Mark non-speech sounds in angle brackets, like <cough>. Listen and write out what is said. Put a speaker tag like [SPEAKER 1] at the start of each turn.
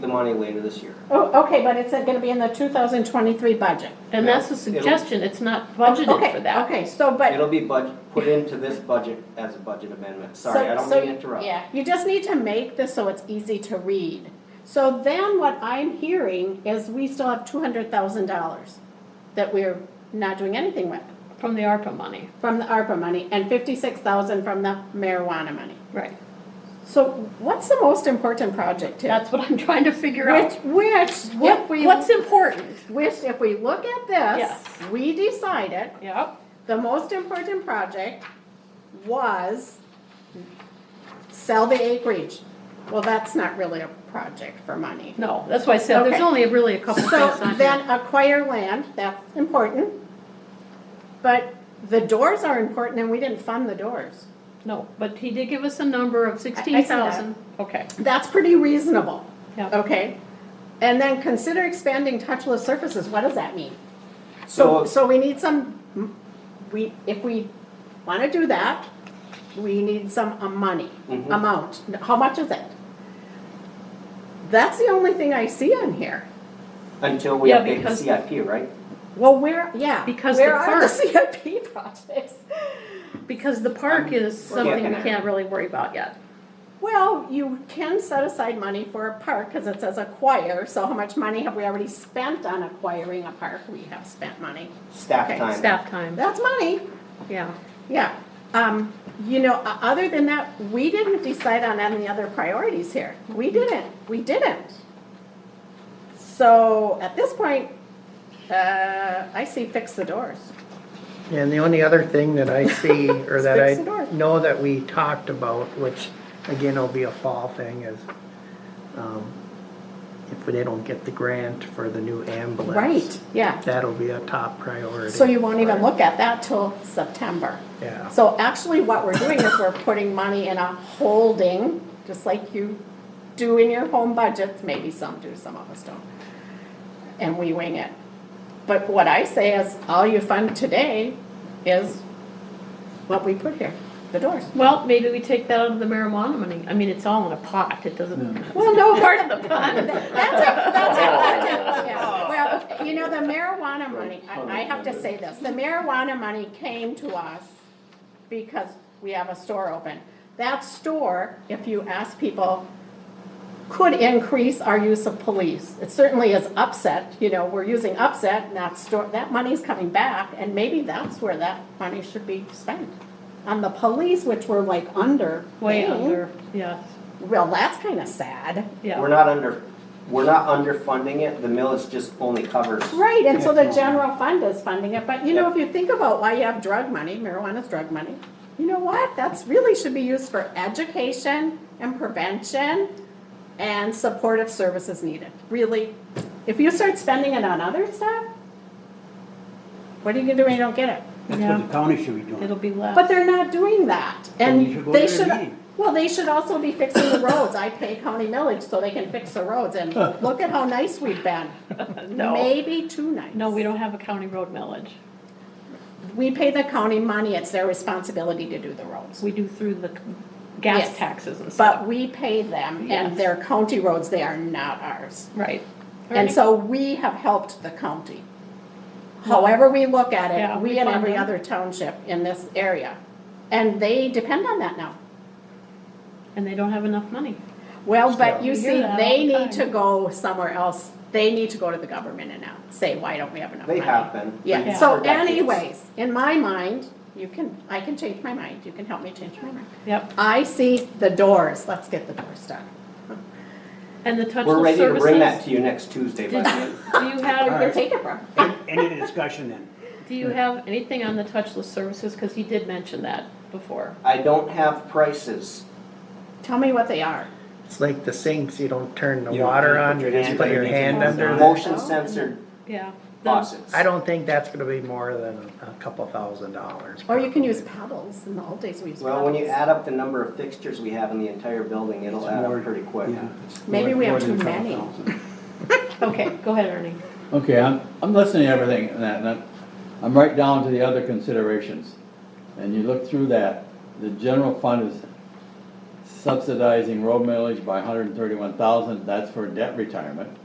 [SPEAKER 1] money later this year.
[SPEAKER 2] Oh, okay, but it's gonna be in the two thousand twenty-three budget.
[SPEAKER 3] And
[SPEAKER 1] Yeah,
[SPEAKER 3] that's a
[SPEAKER 1] it'll-
[SPEAKER 3] suggestion, it's not budgeted
[SPEAKER 2] Okay,
[SPEAKER 3] for that.
[SPEAKER 2] Okay, so, but,
[SPEAKER 1] It'll be budget, put into this budget as a budget amendment. Sorry, I
[SPEAKER 2] So-
[SPEAKER 1] don't
[SPEAKER 2] so
[SPEAKER 1] mean to interrupt.
[SPEAKER 2] yeah, you just need to make this so it's easy to read. So then what I'm hearing is we still have two hundred thousand dollars that we're not doing anything with
[SPEAKER 3] From the ARPA money,
[SPEAKER 2] from the ARPA money and fifty-six thousand from the marijuana money.
[SPEAKER 3] right.
[SPEAKER 2] So what's the most important project here?
[SPEAKER 3] That's what I'm <laughs> trying to figure
[SPEAKER 2] Which,
[SPEAKER 3] out.
[SPEAKER 2] which,
[SPEAKER 3] What,
[SPEAKER 2] if we,
[SPEAKER 3] what's important?
[SPEAKER 2] which, if we look at this,
[SPEAKER 3] Yes.
[SPEAKER 2] we decided
[SPEAKER 3] Yep.
[SPEAKER 2] the most important project was sell the acreage. Well, that's not really a project for money.
[SPEAKER 3] No, that's why I said, there's
[SPEAKER 2] Okay.
[SPEAKER 3] only really a couple things
[SPEAKER 2] So
[SPEAKER 3] on here.
[SPEAKER 2] then acquire land, that's important. But the doors are important and we didn't fund the doors.
[SPEAKER 3] No, but he did give us a number of sixteen
[SPEAKER 2] I see that.
[SPEAKER 3] thousand. Okay,
[SPEAKER 2] That's pretty reasonable,
[SPEAKER 3] yeah.
[SPEAKER 2] okay? And then consider expanding touchless surfaces, what does that mean? So,
[SPEAKER 1] So,
[SPEAKER 2] so we need some, we, if we wanna do that, we need some uh, money,
[SPEAKER 1] Mhm.
[SPEAKER 2] amount, how much is it? That's the only thing I see on here.
[SPEAKER 1] until we
[SPEAKER 3] Yeah,
[SPEAKER 1] update the
[SPEAKER 3] because-
[SPEAKER 1] CIP, right?
[SPEAKER 2] Well, where, yeah,
[SPEAKER 3] Because
[SPEAKER 2] where
[SPEAKER 3] the
[SPEAKER 2] are the <laughs>
[SPEAKER 3] park-
[SPEAKER 2] CIP projects?
[SPEAKER 3] Because the
[SPEAKER 1] Um,
[SPEAKER 3] park is
[SPEAKER 1] We're
[SPEAKER 3] something
[SPEAKER 1] getting
[SPEAKER 3] we
[SPEAKER 1] there.
[SPEAKER 3] can't really worry about yet.
[SPEAKER 2] Well, you can set aside money for a park, cause it says acquire, so how much money have we already spent on acquiring a park? We have spent money,
[SPEAKER 1] Staff
[SPEAKER 2] Okay,
[SPEAKER 1] time.
[SPEAKER 3] Staff time,
[SPEAKER 2] that's money.
[SPEAKER 3] yeah.
[SPEAKER 2] Yeah, um, you know, o- other than that, we didn't decide on any other priorities here. We didn't, we didn't. So at this point, uh, I see fix the doors.
[SPEAKER 4] And the only other thing
[SPEAKER 2] <laughs>
[SPEAKER 4] that I see, or that
[SPEAKER 2] Fix the door.
[SPEAKER 4] I know that we talked about, which again will be a fall thing, is um, if they don't get the grant for the new ambulance.
[SPEAKER 2] Right, yeah.
[SPEAKER 4] That'll be a top priority.
[SPEAKER 2] So you won't even look at that till September.
[SPEAKER 4] Yeah.
[SPEAKER 2] So actually what we're doing is we're putting money in a holding, just like you do in your home budgets, maybe some do, some of us don't. And we wing it. But what I say is, all you fund today is what we put here, the doors.
[SPEAKER 3] Well, maybe we take that out of the marijuana money. I mean, it's all in a pot, it <laughs> doesn't.
[SPEAKER 2] Well, no,
[SPEAKER 3] Part
[SPEAKER 2] <laughs>
[SPEAKER 3] of the pot.
[SPEAKER 2] That's a, that's a budget, yeah. Well, you know, the marijuana money, I, I have to say this, the marijuana money came to us because we have a store open. That store, if you ask people, could increase our use of police. It certainly is upset, you know, we're using upset and that store, that money's coming back and maybe that's where that money should be spent. On the police, which we're like under.
[SPEAKER 3] Way
[SPEAKER 2] paying.
[SPEAKER 3] under, yes,
[SPEAKER 2] Well, that's kind of sad.
[SPEAKER 1] We're
[SPEAKER 3] yeah.
[SPEAKER 1] not under, we're not underfunding it, the millage just only covers.
[SPEAKER 2] Right, and so the general fund is funding it, but you know, if you think about why you have drug money, marijuana's drug money, you know what, that's really should be used for education and prevention and supportive services needed, really. If you start spending it on other stuff, what are you gonna do when you don't get it?
[SPEAKER 5] That's
[SPEAKER 3] Yeah.
[SPEAKER 5] what the county should be
[SPEAKER 3] It'll
[SPEAKER 5] doing.
[SPEAKER 3] be less.
[SPEAKER 2] But they're not doing that,
[SPEAKER 5] Then you should
[SPEAKER 2] and
[SPEAKER 5] go
[SPEAKER 2] they
[SPEAKER 5] to their
[SPEAKER 2] should,
[SPEAKER 5] meeting.
[SPEAKER 2] well, they should also be fixing the roads, I pay county millage so they can fix the roads,
[SPEAKER 5] <laughs>
[SPEAKER 2] and look at how nice we've been.
[SPEAKER 3] No,
[SPEAKER 2] Maybe too nice.
[SPEAKER 3] no, we don't have a county road millage.
[SPEAKER 2] We pay the county money, it's their responsibility to do the roads.
[SPEAKER 3] We do through the gas
[SPEAKER 2] Yes.
[SPEAKER 3] taxes and stuff.
[SPEAKER 2] But we pay them, and
[SPEAKER 3] Yes.
[SPEAKER 2] they're county roads, they are not ours.
[SPEAKER 3] Right.
[SPEAKER 2] And so we have helped the county. However we look at
[SPEAKER 3] Yeah,
[SPEAKER 2] it, we
[SPEAKER 3] we
[SPEAKER 2] and
[SPEAKER 3] fund
[SPEAKER 2] every
[SPEAKER 3] them.
[SPEAKER 2] other township in this area. And they depend on that now.
[SPEAKER 3] And they don't have enough money.
[SPEAKER 2] Well, but you
[SPEAKER 3] We hear
[SPEAKER 2] see,
[SPEAKER 3] that
[SPEAKER 2] they
[SPEAKER 3] all the
[SPEAKER 2] need to
[SPEAKER 3] time.
[SPEAKER 2] go somewhere else. They need to go to the government and now say, why don't we have enough
[SPEAKER 1] They
[SPEAKER 2] money?
[SPEAKER 1] have been.
[SPEAKER 2] Yeah,
[SPEAKER 3] Yeah.
[SPEAKER 2] so
[SPEAKER 1] For decades.
[SPEAKER 2] anyways, in my mind, you can, I can change my mind, you can help me change my mind.
[SPEAKER 3] Yep.
[SPEAKER 2] I see the doors, let's get the doors done.
[SPEAKER 3] And the touchless services.
[SPEAKER 1] We're ready to bring that to you next Tuesday, by
[SPEAKER 3] Did
[SPEAKER 1] the way.
[SPEAKER 3] you, do you have,
[SPEAKER 2] Where take it from?
[SPEAKER 5] Any discussion then?
[SPEAKER 3] do you have anything on the touchless services? Because he did mention that before.
[SPEAKER 1] I don't have prices.
[SPEAKER 2] Tell me what they are.
[SPEAKER 4] It's like the sinks, you don't turn the
[SPEAKER 5] You don't
[SPEAKER 4] water
[SPEAKER 5] put
[SPEAKER 4] on, you
[SPEAKER 5] your
[SPEAKER 4] just
[SPEAKER 5] hand
[SPEAKER 4] put your
[SPEAKER 5] underneath
[SPEAKER 4] hand
[SPEAKER 5] it.
[SPEAKER 4] under there.
[SPEAKER 2] Oh.
[SPEAKER 1] Motion censored
[SPEAKER 3] Yeah. The-
[SPEAKER 1] faucets.
[SPEAKER 4] I don't think that's gonna be more than a couple thousand dollars.
[SPEAKER 2] Or you can use
[SPEAKER 4] probably.
[SPEAKER 2] paddles, in the old days we used paddles.
[SPEAKER 1] Well, when you add up the number of fixtures we have in the entire building, it'll add up pretty quick.
[SPEAKER 5] Yeah.
[SPEAKER 2] Maybe we have
[SPEAKER 5] More than
[SPEAKER 2] too many.
[SPEAKER 5] 12,000.
[SPEAKER 3] Okay, go ahead, Ernie.
[SPEAKER 6] Okay, I'm, I'm listening to everything and that, and I'm, I'm right down to the other considerations. And you look through that, the general fund is subsidizing road mileage by hundred and thirty-one thousand, that's for debt retirement.